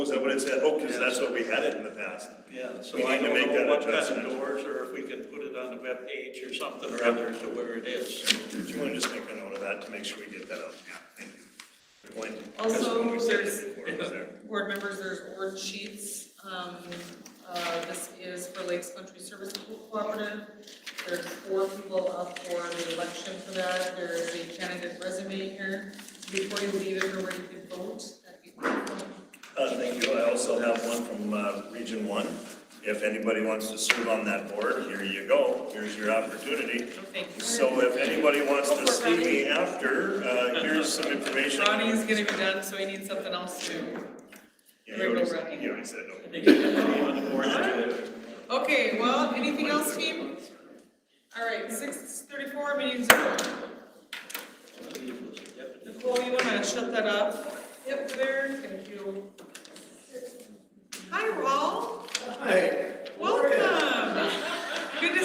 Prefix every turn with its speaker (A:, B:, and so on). A: Was that what it said? Oh, because that's what we had it in the past.
B: Yeah, so
A: We
B: I
A: need to
B: don't
A: make
B: know
A: that
B: what kind of
A: adjustment.
B: doors, or if we can put it on the web page or something or other to where it is.
A: Do you want to just make a note of that to make sure we get that out? Yeah, thank you. Good point.
C: Also,
A: That's when we said it
C: there's-
A: before, it was there.
C: Board members, there's board sheets. Um, uh, This is for Lakes Country Service Cooperative. There's four people up for the election for that. There is a candidate resume here. Before you leave, if you're ready to vote, that'd be wonderful.
A: Uh, thank you. I also have one from, uh, Region One. If anybody wants to serve on that board, here you go. Here's your opportunity.
C: Thank you.
A: So if anybody wants to see me after, uh, here's some information.
C: Ronnie is gonna be done, so he needs something else too.
A: Yeah, You already
C: Ronnie.
A: said- you already said no.
B: I think it can be on the board too.
C: Okay, well, anything else, team? All right, six thirty-four, meeting's over. Nicole, you wanna shut that up? Yep, there, thank you. Hi, Raul.
D: Hi,